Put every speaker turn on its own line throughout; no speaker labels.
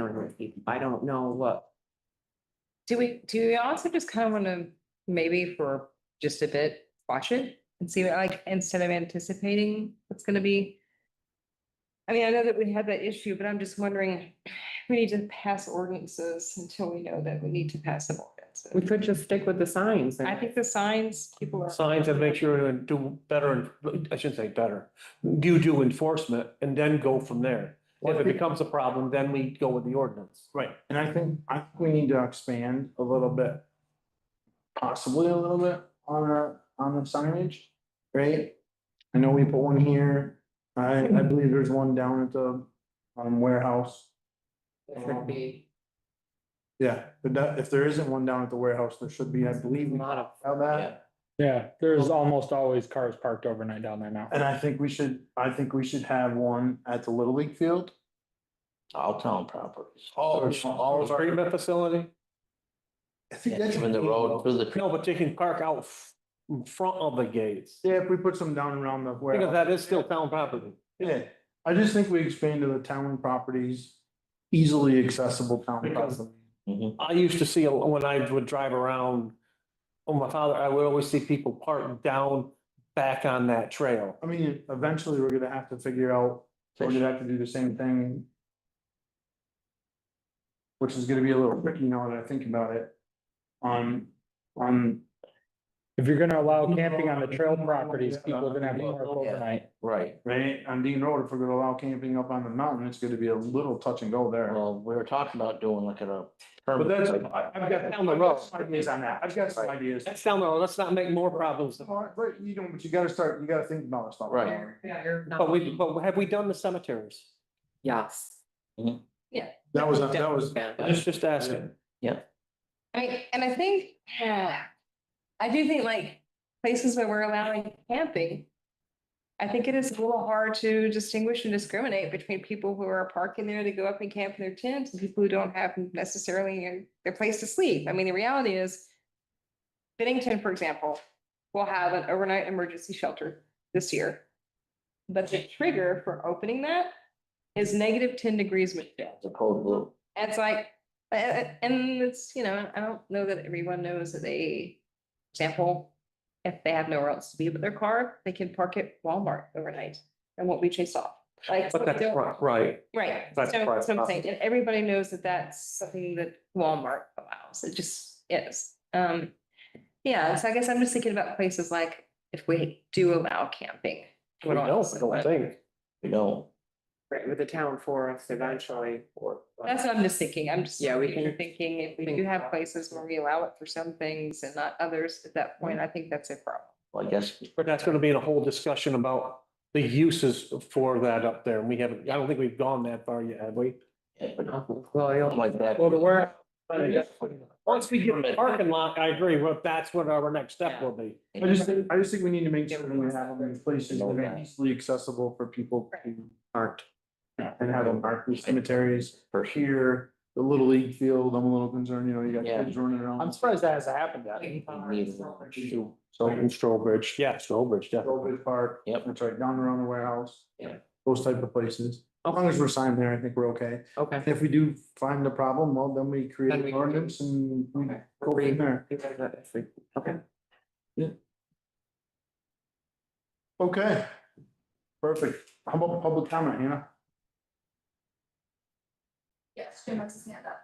internet people. I don't know what,
Do we, do we also just kind of want to maybe for just a bit, watch it and see what, like, instead of anticipating what's gonna be? I mean, I know that we had that issue, but I'm just wondering, we need to pass ordinances until we know that we need to pass an ordinance.
we could just stick with the signs. and-
I think the signs, people are.
signs and make sure and do better, I shouldn't say better, you do enforcement and then go from there. If it becomes a problem, then we go with the ordinance.
Right, and I think, I think we need to expand a little bit. Possibly a little bit on our, on the signage, right? I know we put one here, I, I believe there's one down at the, um, warehouse.
It should be
Yeah, but that, if there isn't one down at the warehouse, there should be, I believe, we
not a.
have
yeah.
that.
Yeah, there's almost always cars parked overnight down there now.
And I think we should, I think we should have one at the Little League field.
all town properties.
All,
all of our-
treatment facility,
I think that's.
Even the road through the.
no, but they can park out f- in front of the gates.
Yeah, if we put some down around the warehouse.
Because that is still town property.
Yeah, I just think we expand to the town properties, easily accessible town
Because-
property.
I used to see, a- when I would drive around, oh, my father, I would always see people parked down back on that trail.
I mean, eventually we're gonna have to figure out, we're gonna have to do the same thing. Which is gonna be a little tricky now that I think about it. On, on,
If you're gonna allow camping on the trail properties, people are gonna have to park
Yeah.
overnight.
Right,
right, on Dean Road, if we're gonna allow camping up on the mountain, it's gonna be a little touch and go there.
well, we were talking about doing like a.
But that's, I've
permit.
got, I've
Down the road.
got some ideas on that, I've got some ideas.
That's down there, let's not make more problems.
But you don't, but you gotta start, you gotta think about stuff.
Right.
Yeah, you're
But we, but have we done the cemeteries?
Yes.
That was, that was,
Just, just asking.
I mean, and I think, yeah, I do think like places where we're allowing camping. I think it is a little hard to distinguish and discriminate between people who are parking there to go up and camp in their tents and people who don't have necessarily a- their place to sleep. I mean, the reality is. Bennington, for example, will have an overnight emergency shelter this year. But the trigger for opening that is negative ten degrees Michelle.
The cold blue.
And It's like, uh, uh, and it's, you know, I don't know that everyone knows that they sample. If they have nowhere else to be but their car, they can park at Walmart overnight and won't be chased off. Like,
But that's
don't-
right, right.
right. So
that's private
so I'm saying, and everybody knows that that's something that Walmart allows. It just is. Um, yeah, so I guess I'm just thinking about places like if we do allow camping.
We don't, I don't think.
We don't.
Right, with the town forest eventually or.
That's what I'm just thinking. I'm just.
Yeah, we can-
Thinking if we
think
do have
about-
places where we allow it for some things and not others, at that point, I think that's a problem.
Well, I guess,
But that's gonna be in a whole discussion about the uses for that up there. And we haven't, I don't think we've gone that far yet, have we?
yeah, but not
Well, I don't-
like that.
Well, the where,
Once we get the parking lot, I agree, but that's what our next step will be.
I just think, I just think we need to make sure that we have them in places that are easily accessible for people to-
Aren't.
and have them mark the cemeteries.
For sure.
Here, the little league field, I'm a little concerned, you know, you got
Yeah.
kids running around.
I'm surprised that hasn't happened yet.
Shoot.
So in Strobridge, yeah, Strobridge, definitely.
Strawberry Park.
Yep.
That's right, down around the warehouse.
Yeah.
Those type of places. As long as we're signed there, I think we're okay.
Okay.
And if we do find the problem, well, then we create
Then we
an
can do-
ordinance and we
Okay.
go from there.
Okay.
Okay. Perfect. How about public comment, Hannah?
Yes, Jim wants his hand up.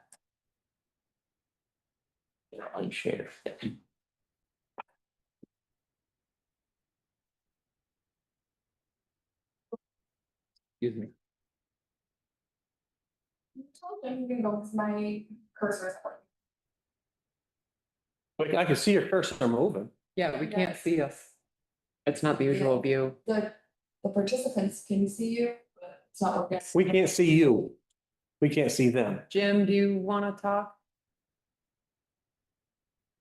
You know, like share.
Excuse me.
You told him you can go, because my cursor is pointing.
But I can see your cursor moving.
Yeah, we can't
Yes.
see us. It's not the usual view.
The, the participants can see you, but it's not working.
We can't see you. We can't see them.
Jim, do you want to talk?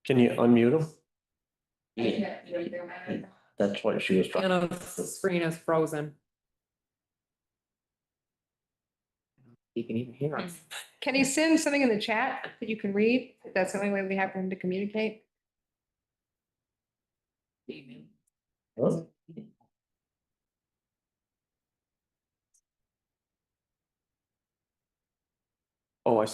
Can you unmute them?
I
Yeah,
can't hear you, man.
that's what she was trying.
Anna's screen is frozen. He can even hear us.
Can you send something in the chat that you can read? That's the only way we have for him to communicate.
Huh?
Oh, I